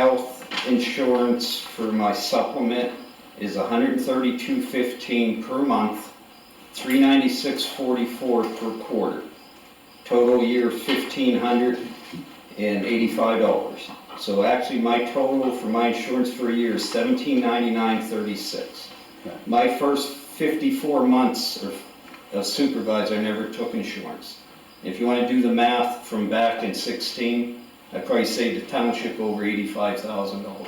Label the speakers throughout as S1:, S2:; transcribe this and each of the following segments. S1: health insurance for my supplement is hundred thirty-two fifteen per month, three ninety-six forty-four per quarter. Total year fifteen hundred and eighty-five dollars. So actually, my total for my insurance for a year is seventeen ninety-nine thirty-six.
S2: Okay.
S1: My first fifty-four months of- of supervisor, I never took insurance. If you wanna do the math from back in sixteen, I probably saved the township over eighty-five thousand dollars.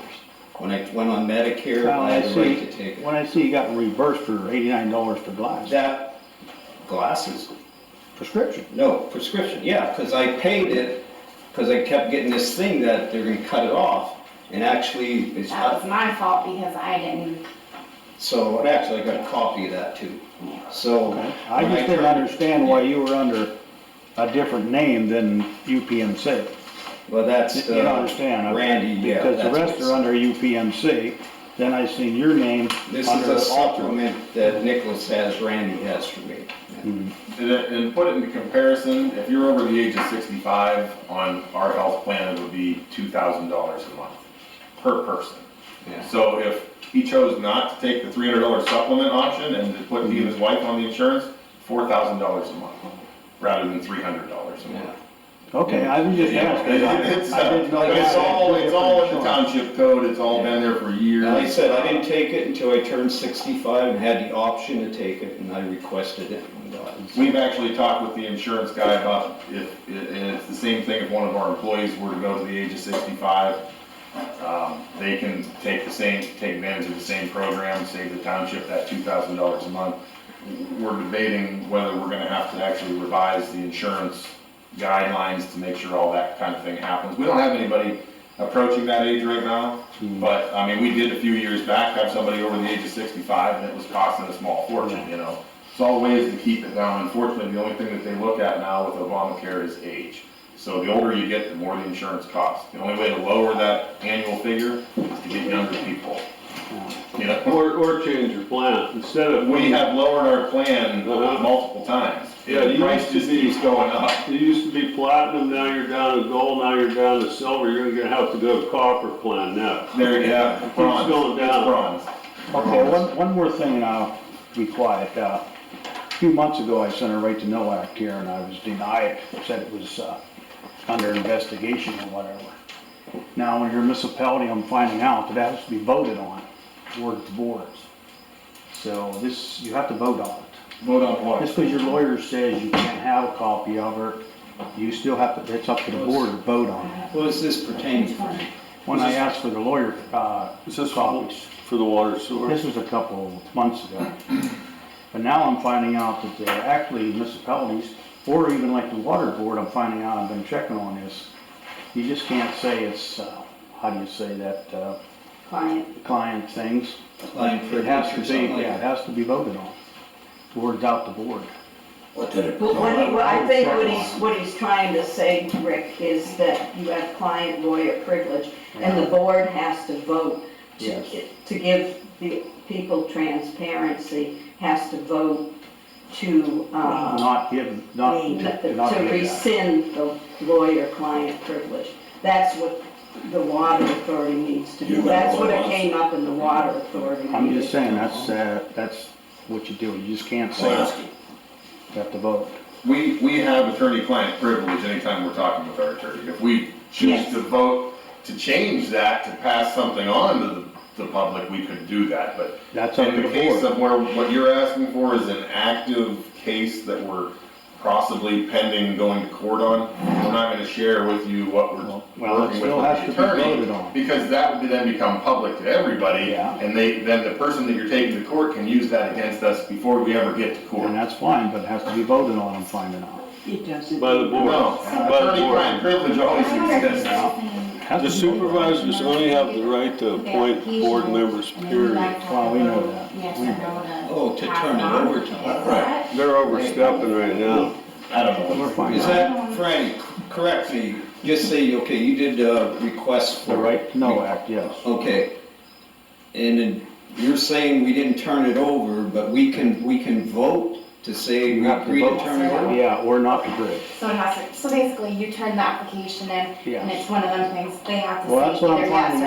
S1: When I went on Medicare,
S2: Well,
S1: I
S2: I
S1: had the right
S2: see.
S1: to take it.
S2: When I see you got reversed for eighty-nine dollars for glass,
S1: That, glasses,
S2: prescription,
S1: no, prescription, yeah, because I paid it, because I kept getting this thing that they're gonna cut it off. And actually, it's,
S3: That was my fault because I didn't,
S1: so, and actually, I got a copy of that too, so.
S2: okay? I
S1: when
S2: just didn't
S1: turned-
S2: understand why you were under a different name than UPMC.
S1: Well,
S2: You
S1: that's,
S2: don't
S1: uh,
S2: understand? I-
S1: Randy, yeah.
S2: Because the
S1: that's
S2: rest
S1: what's-
S2: are under UPMC, then I seen your name
S1: This is
S2: under
S1: a
S2: Alter.
S1: supplement that Nicholas has, Randy has for me.
S2: Mm-hmm.
S4: And, and put it into comparison, if you're over the age of sixty-five on our health plan, it would be two thousand dollars a month per person.
S1: Yeah.
S4: So if he chose not to take the three hundred dollar supplement option and to put he and his wife on the insurance, four thousand dollars a month, rather than three hundred dollars a month.
S1: Yeah.
S2: Okay, I was just
S4: Yeah,
S2: asking. I-
S4: It's,
S2: I
S4: uh,
S2: didn't know
S4: but
S2: you
S4: it's
S2: had
S4: all, it's all in the
S2: different
S4: township code, it's all been there for years.
S1: And like I said, I didn't take it until I turned sixty-five and had the option to take it, and I requested it and got it.
S4: We've actually talked with the insurance guy about if, and it's the same thing if one of our employees were to go to the age of sixty-five. um, They can take the same, take advantage of the same program, save the township that two thousand dollars a month. We're debating whether we're gonna have to actually revise the insurance guidelines to make sure all that kind of thing happens. We don't have anybody approaching that age right now, but, I mean, we did a few years back have somebody over the age of sixty-five and it was costing a small fortune, you know? It's all ways to keep it down. Unfortunately, the only thing that they look at now with Obamacare is age. So the older you get, the more the insurance costs. The only way to lower that annual figure is to get younger people. You know,
S5: Or, or change your plan, instead of,
S4: we have lowered our plan
S5: Uh-huh.
S4: multiple times.
S5: Yeah,
S4: The
S5: you
S4: price
S5: used to
S4: just
S5: be-
S4: keeps going up.
S5: you used to be platinum, now you're down to gold, now you're down to silver, you're gonna have to go to copper plan now.
S4: There you have it.
S5: Keeps
S4: Bronze.
S5: going
S4: It's
S5: down.
S4: Bronze.
S2: Okay, one, one more thing, and I'll be quiet. Uh, A few months ago, I sent a right to know act here, and I was denied, said it was uh, under investigation or whatever. Now, when you're a municipality, I'm finding out that has to be voted on, board to boards. So this, you have to vote on it.
S4: Vote on
S2: Just
S4: what?
S2: because your lawyer says you can't have a copy of it, you still have to, it's up to the board to vote on it.
S1: What does this pertain to?
S2: When I asked for the lawyer uh,
S5: Is this for
S2: copies,
S5: for the water sewer?
S2: this was a couple months ago. But now I'm finding out that they're actually municipalities, or even like the water board, I'm finding out, I've been checking on this. You just can't say it's, uh, how do you say that, uh,
S3: client,
S2: client things.
S1: Like
S2: It has to
S1: privilege or
S2: be,
S1: something like
S2: yeah, it
S1: that?
S2: has to be voted on. Word's out the board.
S6: But what he, what I think what he's, what he's trying to say, Rick, is that you have client lawyer privilege, and the board has to vote to,
S2: Yes.
S6: to give the people transparency, has to vote to, uh,
S2: Not give, not,
S6: n-
S2: not give
S6: to
S2: that.
S6: rescind the lawyer-client privilege. That's what the water authority needs to do. That's what it came up in the water authority.
S2: I'm just
S6: meeting.
S2: saying, that's, uh, that's what you do, you just can't say it. You have to vote.
S4: We, we have attorney-client privilege anytime we're talking with our attorney. If we choose
S6: Yes.
S4: to vote to change that, to pass something on to the, the public, we could do that, but
S2: That's up
S4: in
S2: to
S4: the
S2: the
S4: case
S2: board.
S4: of where, what you're asking for is an active case that we're possibly pending going to court on, we're not gonna share with you what we're
S2: Well,
S4: working
S2: well, it
S4: with with
S2: still has to
S4: the
S2: be voted on.
S4: attorney. Because that would then become public to everybody,
S2: Yeah.
S4: and they, then the person that you're taking to court can use that against us before we ever get to court.
S2: And that's fine, but it has to be voted on, I'm finding out.
S6: It doesn't.
S5: By the board.
S4: No, attorney-client privilege always exists.
S2: Has
S5: The
S2: to be voted on.
S5: supervisors only have the right to appoint board members, period.
S2: Well, we know that.
S3: Yes,
S2: We
S3: I
S2: know
S3: know that.
S1: Oh, to turn it over to him.
S3: Right.
S5: They're overstepping right now.
S4: I don't know.
S2: We're finding
S1: Is
S2: out.
S1: that, Frank, correct me, just say, okay, you did a request for.
S2: The right to know act, yes.
S1: Okay, and then you're saying we didn't turn it over, but we can, we can vote to say we
S2: You have to vote.
S1: predetermined.
S2: Yeah, or not the bridge,
S3: So it has to, so basically you turn the application in
S2: yeah.
S3: and it's one of them things, they have to say
S2: Well, that's what I'm
S3: either yes
S2: finding
S3: or